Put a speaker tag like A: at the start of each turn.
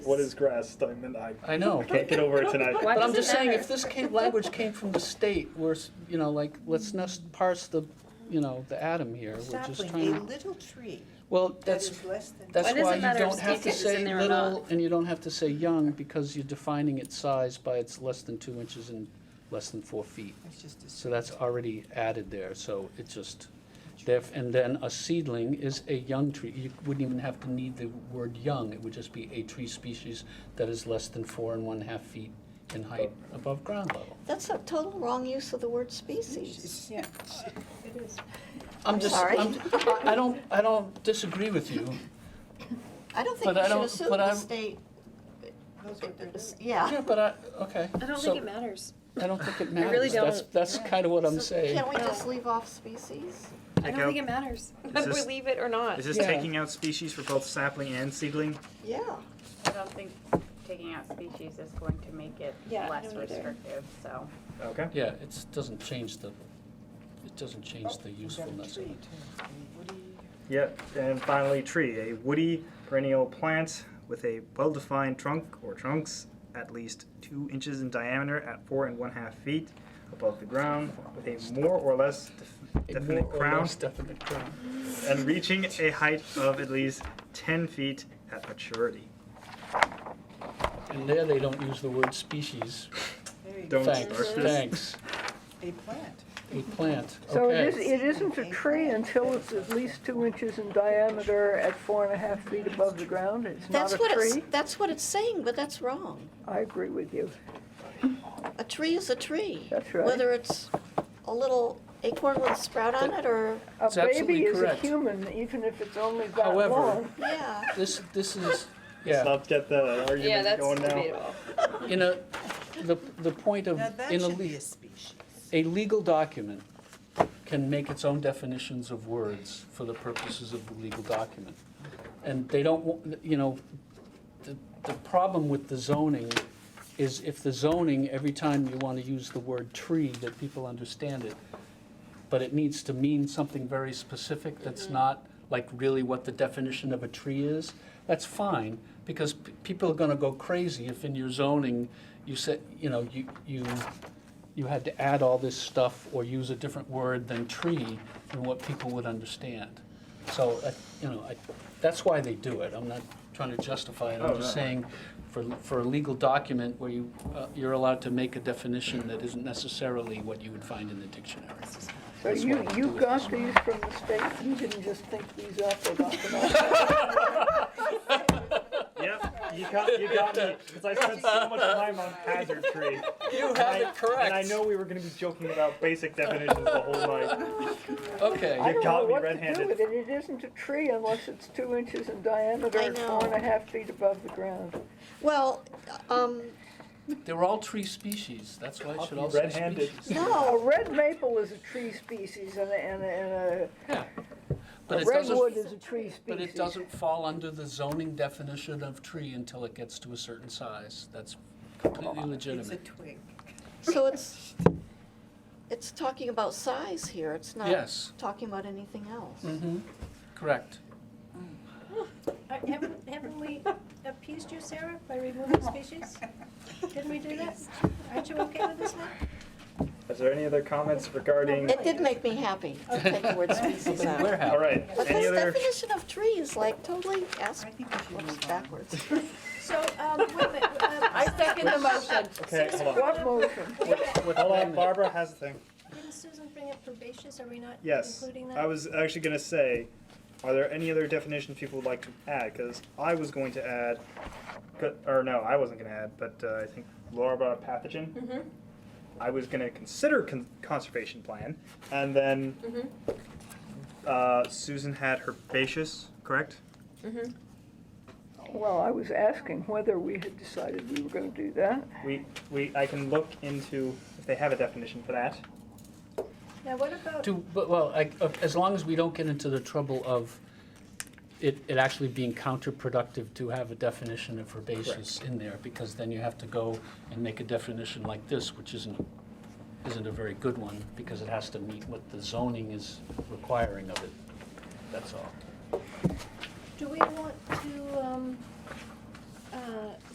A: What is grass? Steinman? I
B: I know.
A: I can't get over it tonight.
B: But
C: Why does
B: I'm
C: it
B: just saying,
C: matter?
B: if this came, language came from the state, we're, s- you know, like,
C: Mm-hmm.
B: let's not parse the, you know, the atom here, we're just
D: Sapling, a
B: trying,
D: little tree
B: well,
D: that
B: that's,
D: is less than.
B: that's
C: Why does
B: why
C: it
B: you
C: matter if
B: don't have to
C: Skeetus is
B: say
C: in there or
B: little,
C: not?
B: and you don't have to say young, because you're defining its size by it's less than two inches and less than four feet.
D: It's just a
B: So that's already added there, so it just, def, and then a seedling is a young tree. You wouldn't even have to need the word young, it would just be a tree species that is less than four and one half feet in height above ground level.
E: That's a total wrong use of the word species.
D: It's-
C: Yeah.
B: I'm just,
E: Sorry.
B: I'm, I don't, I don't disagree with you.
E: I don't
B: But
E: think we
B: I
E: should
B: don't-
E: assume
B: but
E: the
B: I'm-
E: state,
D: Those are the-
B: Yeah,
E: yeah.
B: but I, okay.
C: I don't
B: So,
C: think it matters.
B: I don't think it
C: really
B: matters. That's,
C: don't.
B: that's kind of what I'm
E: So
B: saying.
E: Can't we just leave off species?
C: I don't
F: out-
C: think it matters
F: Is
C: whether we
F: this-
C: leave it or not.
F: Is this
B: Yeah.
F: taking out species for both sapling and seedling?
E: Yeah.
G: I don't think taking out species is going to make it
C: Yeah, I
G: less
C: don't either.
G: restrictive, so.
F: Okay.
B: Yeah, it doesn't change the, it doesn't
C: Oh,
B: change the
D: We've got a
B: usefulness of
D: tree,
B: it.
D: too. A woody-
F: Yep. And finally, tree, a woody perennial plant with a well-defined trunk or trunks at least two inches in diameter at four and one half feet above the ground, with a more or less def-
B: A
F: definite
B: more or
F: crown
B: less Definite crown.
F: and reaching a height of at least ten feet at maturity.
B: And there they don't use the word species.
D: there you
F: Don't
D: go.
B: Thanks,
F: start this.
B: thanks.
D: A plant.
B: A plant,
H: So it is,
B: okay.
H: it isn't a tree until it's at least two inches in diameter at four and a half feet above the ground, it's not
E: That's
H: a
E: what it's,
H: tree?
E: that's what it's saying, but that's wrong.
H: I agree with you.
E: A tree is a tree.
H: That's right.
E: Whether it's a little acorn with a sprout on it or,
H: A
B: It's absolutely
H: baby is a
B: correct.
H: human, even if it's only that
B: However-
H: long.
E: yeah.
B: This, this is,
A: Let's
B: yeah,
A: not get the argument
C: Yeah, that's
A: going now.
C: debatable.
B: in a, the, the point of,
D: Now, that
B: in a,
D: should be
B: le-
D: a species.
B: a legal document can make its own definitions of words for the purposes of the legal document. And they don't, wa- you know, the, the problem with the zoning is if the zoning, every time you want to use the word tree, that people understand it, but it needs to mean something very specific that's not like really what the definition of a tree is, that's fine, because p- people are gonna go crazy if in your zoning, you said, you know, you, you, you had to add all this stuff or use a different word than tree than what people would understand. So, I- you know, I, that's why they do it, I'm not trying to justify it,
F: Oh,
B: I'm just
F: no.
B: saying, for, for a legal document where you, uh, you're allowed to make a definition that isn't necessarily what you would find in the dictionary.
H: So
B: That's
H: you,
B: why I
H: you
B: do it
H: got
B: this way.
H: these from the state, you didn't just think these up or got them off.
A: Yep, you got, you got me, because I spent so much time on hazard tree.
B: You
A: I- And I know we were gonna be joking about basic definitions the whole night.
H: I
B: Okay,
H: don't
A: got
H: know
A: me
H: what to do
A: red-handed.
H: with it, it isn't a tree unless it's two inches in diameter
E: I
H: and four and
E: know.
H: a half feet above the ground.
E: Well, um,
B: they're all tree species, that's why it should all say
A: Red-handed.
B: species.
H: A
E: no,
H: red maple is a tree species and a, and a- and a
B: Yeah, But
H: A
B: it doesn't,
H: Redwood is a tree species.
B: but it doesn't fall under the zoning definition of tree until it gets to a certain size. That's completely
D: It's a
B: legitimate.
D: twig.
E: so it's, it's talking about size here. It's not
B: Yes,
E: talking about anything else.
B: mm-hmm, correct.
I: Uh, Haven't, haven't we appeased you, Sarah, by removing species? Didn't we do that? Aren't you okay with this now?
F: Is there any other comments regarding?
E: It did make me happy to take the word species out.
B: Where
F: All
B: have,
F: right.
E: But
F: any
E: this
F: other?
E: definition of tree is like totally ass,
D: I think we should
E: whoops,
D: move on.
E: backwards.
I: So, um, wait a minute, um,
G: I second the motion.
A: Okay, hold on.
H: What motion?
I: wait a minute,
A: Hold
B: what, wait a
A: on,
B: minute.
A: Barbara has a thing.
I: didn't Susan bring up herbaceous, are we not
F: Yes,
I: including that?
F: I was actually gonna say, are there any other definitions people would like to add? Because I was going to add, co- or no, I wasn't gonna add, but uh, I think Laura brought up pathogen.
I: Mm-hmm.
F: I was gonna consider con- conservation plan, and then
I: Mm-hmm.
F: uh, Susan had herbaceous, correct?
H: Well, I was asking whether we had decided we were gonna do that.
F: We, we, I can look into if they have a definition for that.
I: Now, what about,
B: Do, but, well, I, uh, as long as we don't get into the trouble of it, it actually being counterproductive to have a definition of herbaceous in there, because then you have to go and make a definition like this, which isn't, isn't a very good one, because it has to meet what the zoning is requiring of it. That's all.
I: do we want to, um, uh,